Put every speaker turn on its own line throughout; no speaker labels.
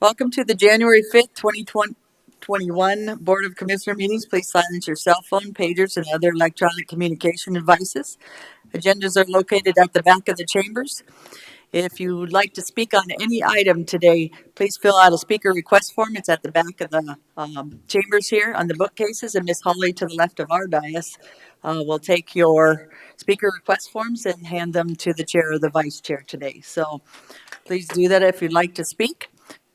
Welcome to the January 5th, 2021 Board of Commissioner meetings. Please silence your cell phone, pagers, and other electronic communication devices. Agendas are located at the back of the chambers. If you would like to speak on any item today, please fill out a speaker request form. It's at the back of the um, chambers here on the bookcases, and Miss Hawley to the left of our dais uh, will take your speaker request forms and hand them to the chair or the vice chair today. So please do that if you'd like to speak.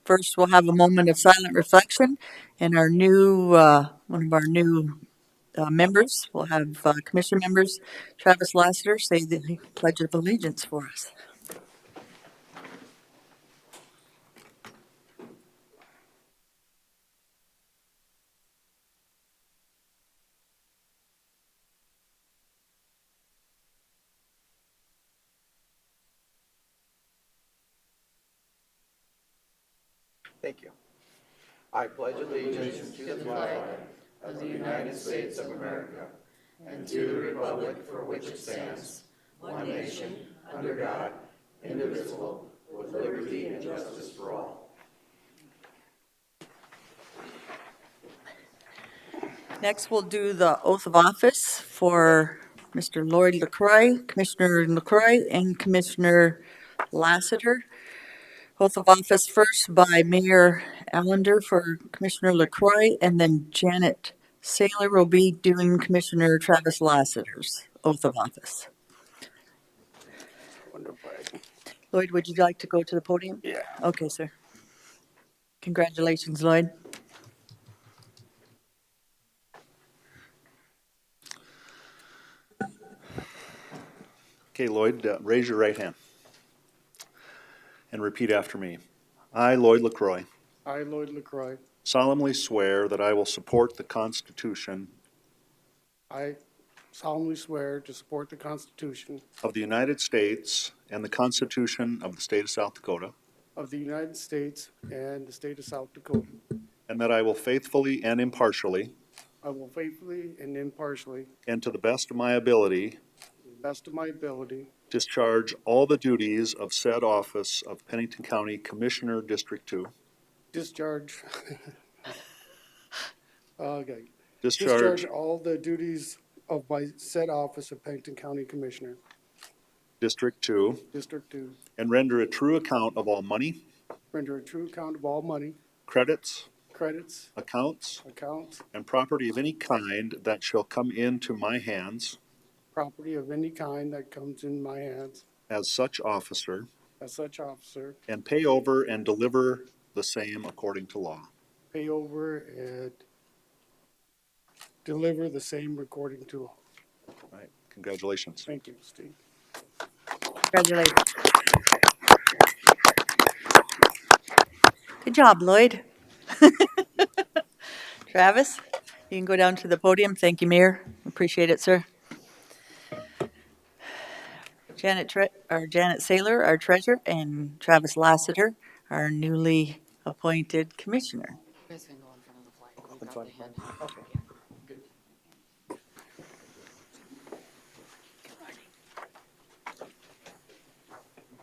First, we'll have a moment of silent reflection, and our new, uh, one of our new uh, members, we'll have uh, commission members, Travis Lassiter, say the Pledge of Allegiance for us.
Thank you. I pledge allegiance to the flag
Next, we'll do the oath of office for Mr. Lloyd LaCroix, Commissioner LaCroix, and Commissioner Lassiter. Oath of office first by Mayor Allender for Commissioner LaCroix, and then Janet Saylor will be doing Commissioner Travis Lassiter's oath of office. Lloyd, would you like to go to the podium?
Yeah.
Okay, sir. Congratulations, Lloyd.
Okay, Lloyd, uh, raise your right hand and repeat after me. I, Lloyd LaCroix,
I, Lloyd LaCroix,
solemnly swear that I will support the Constitution
I solemnly swear to support the Constitution
of the United States and the Constitution of the State of South Dakota,
of the United States and the state of South Dakota.
and that I will faithfully and impartially,
I will faithfully and impartially,
and to the best of my ability,
to the best of my ability,
discharge all the duties of said office of Pennington County Commissioner, District Two.
discharge, okay, discharge
Discharge,
all the duties of my said office of Pennington County Commissioner,
District Two,
District Two,
and render a true account of all money,
render a true account of all money,
credits,
credits,
accounts,
accounts,
and property of any kind that shall come into my hands
property of any kind that comes in my hands
as such officer,
as such officer,
and pay over and deliver the same according to law.
pay over and deliver the same recording to all.
All right, congratulations.
Thank you, Steve.
Congratulations. Good job, Lloyd. Travis, you can go down to the podium. Thank you, Mayor. Appreciate it, sir. Janet, Tre- or Janet Saylor, our treasurer, and Travis Lassiter, our newly appointed commissioner.
You guys can go in front of the flag. We've got the hand.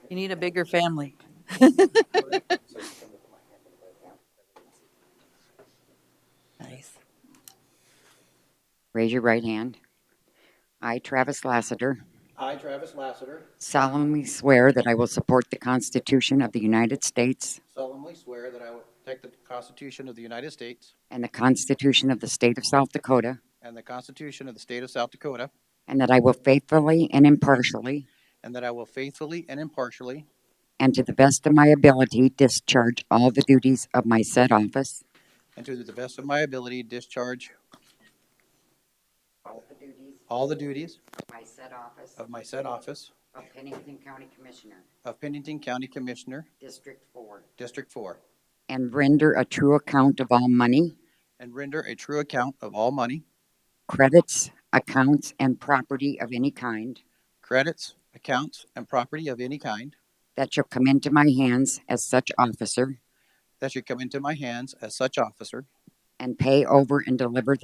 You need a bigger family. Nice.
Raise your right hand. I, Travis Lassiter,
I, Travis Lassiter,
solemnly swear that I will support the Constitution of the United States
solemnly swear that I will protect the Constitution of the United States
and the Constitution of the State of South Dakota,
and the Constitution of the State of South Dakota,
and that I will faithfully and impartially,
and that I will faithfully and impartially,
and to the best of my ability, discharge all the duties of my said office
and to the best of my ability, discharge all the duties
my said office
of my said office
of Pennington County Commissioner,
of Pennington County Commissioner,
District Four,
District Four,
and render a true account of all money,
and render a true account of all money,
credits, accounts, and property of any kind
credits, accounts, and property of any kind
that shall come into my hands as such officer
that should come into my hands as such officer,
and pay over and deliver